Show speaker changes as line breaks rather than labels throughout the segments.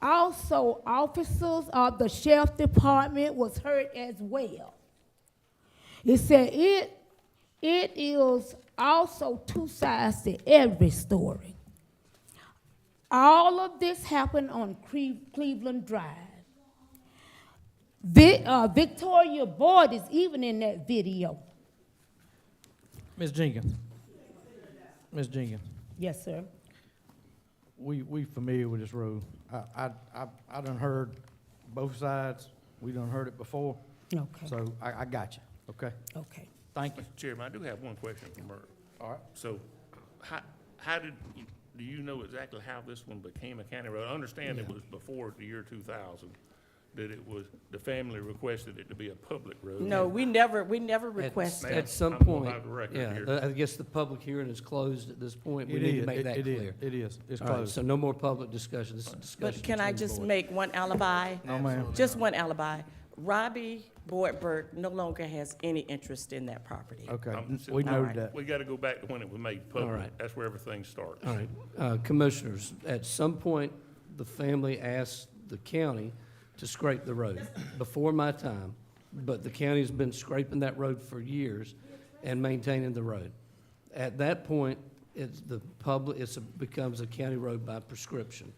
Also, officers of the sheriff department was hurt as well. It said it, it is also two sides to every story. All of this happened on Cleve- Cleveland Drive. Vi- uh, Victoria Boyd is even in that video.
Ms. Jenkins. Ms. Jenkins,
Yes, sir.
we, we familiar with this road. I, I, I, I done heard both sides. We done heard it before.
Okay,
So I, I got you, okay?
okay.
Thank you.
Chairman, I do have one question for Murray.
All right.
So how, how did, do you know exactly how this one became a county road? I understand it was before the year two thousand, that it was, the family requested it to be a public road.
No, we never, we never
At-
requested.
Ma'am,
At some
I'm gonna
point,
have a record
yeah,
here.
the- I guess the public hearing is closed at this point. We
It
need
is.
to make
It-
that
it is.
clear.
It is, it's
All right,
closed.
so no more public discussion, this is discussion.
But can I
between the
just
boards.
make one alibi?
No, ma'am.
Just one alibi. Robbie Boydberg no longer has any interest in that property.
Okay,
I'm-
we
All
noted
right.
that.
We gotta go back to when it was made public.
right.
That's where everything starts.
All right, uh, commissioners, at some point, the family asked the county to scrape the road before my time, but the county's been scraping that road for years and maintaining the road. At that point, it's the public, it's, a- becomes a county road by prescription.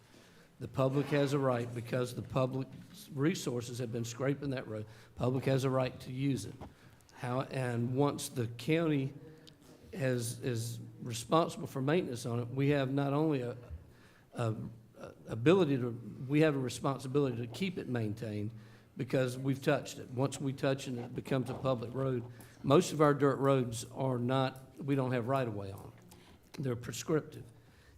The public has a right, because the public's resources have been scraping that road, public has a right to use it. How, and once the county has, is responsible for maintenance on it, we have not only a, a a- ability to, we have a responsibility to keep it maintained because we've touched it. Once we touch it, it becomes a public road. Most of our dirt roads are not, we don't have right-of-way on. They're prescriptive.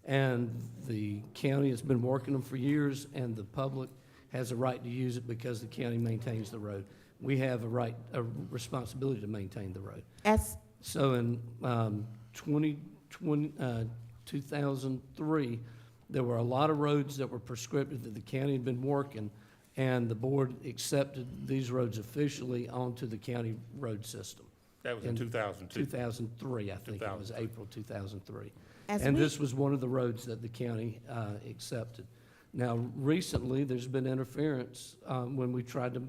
And the county has been working them for years, and the public has a right to use it because the county maintains the road. We have a right, a responsibility to maintain the road.
As,
So in um, 2020, uh, 2003, there were a lot of roads that were prescriptive that the county had been working, and the board accepted these roads officially onto the county road system.
That was in
And
two thousand two.
2003, I think it was,
2003.
April 2003.
As
And
we-
this was one of the roads that the county uh, accepted. Now, recently, there's been interference um, when we tried to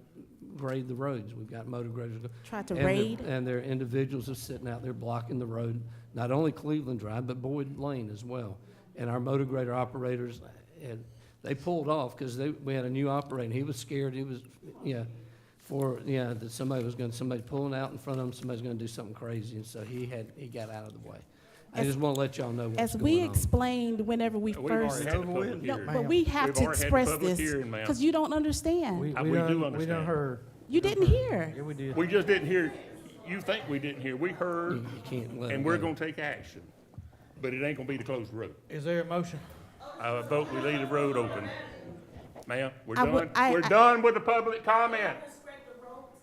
grade the roads. We've got motor graders.
Tried to
And there-
raid?
And there are individuals are sitting out there blocking the road, not only Cleveland Drive, but Boyd Lane as well. And our motor grader operators, and they pulled off because they, we had a new operator, and he was scared, he was, yeah, for, yeah, that somebody was going, to somebody pulling out in front of him, somebody's going to do something crazy, and so he had, he got out of the way. I
As-
just want to let y'all know what's
as we
going on.
explained whenever we
We've already
first.
had the public
No,
No,
hearing.
but we have
We've already
to
had the
express
public
this,
hearing, ma'am.
because you don't understand.
Uh,
I- we
done-
do
We done
understand.
heard.
You didn't
Yeah,
hear.
we did.
We just didn't hear, you think we didn't hear, we
You
heard,
you can't Mm-hmm. let it
and we're
go.
gonna take action, but it ain't gonna be the closed road.
Is there a motion?
I vote we leave the road open. Ma'am, we're
I would-
done,
I-
we're
I-
done with the public comment.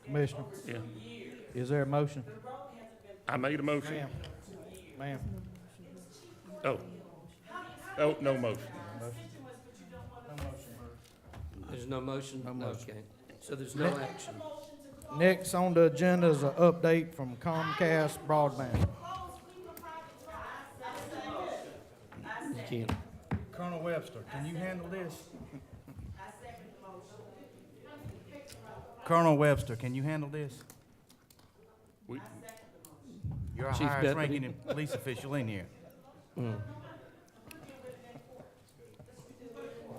Commissioner,
Yeah,
is there a motion?
I made a motion.
Ma'am, ma'am,
Oh. Oh, no motion.
There's no motion?
No motion.
Okay. So there's no action.
next on the agenda is an update from Comcast broadband.
You can't.
Colonel Webster, can you handle this?
Colonel Webster, can you handle this?
We-
You're our
Chief
highest
Deputy.
ranking police official in here.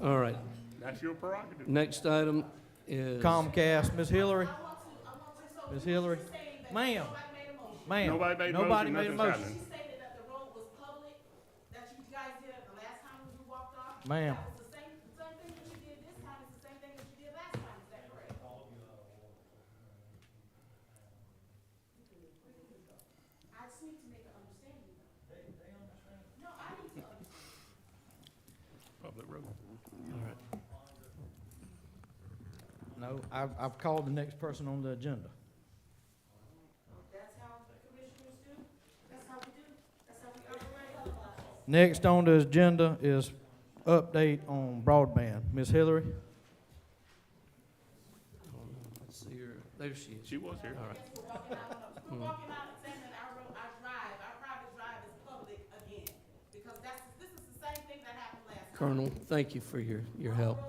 All right.
That's your prerogative.
Next item is.
Comcast, Ms. Hillary? Ms. Hillary? Ma'am, ma'am.
Nobody made a
Nobody made a
motion, nothing's
motion.
happening.
stated that the road was public, that you guys did it the last time when you walked off.
Ma'am.
That was the same, same thing that you did this time, it's the same thing that you did last time, is that correct? I just need to make an understanding. They, they understand. No, I need to understand.
Public road.
No, I've, I've called the next person on the agenda.
That's how the commissioners do, that's how we do, that's how we operate.
Next on the agenda is update on broadband. Ms. Hillary?
Let's see her. There she is.
She was here.
All right.
We're walking out, we're
Mm-hmm.
walking out and saying that our, road- our drive, our private drive is public again, because that's, this is the same thing that happened last time.
Colonel, thank you for your, your help.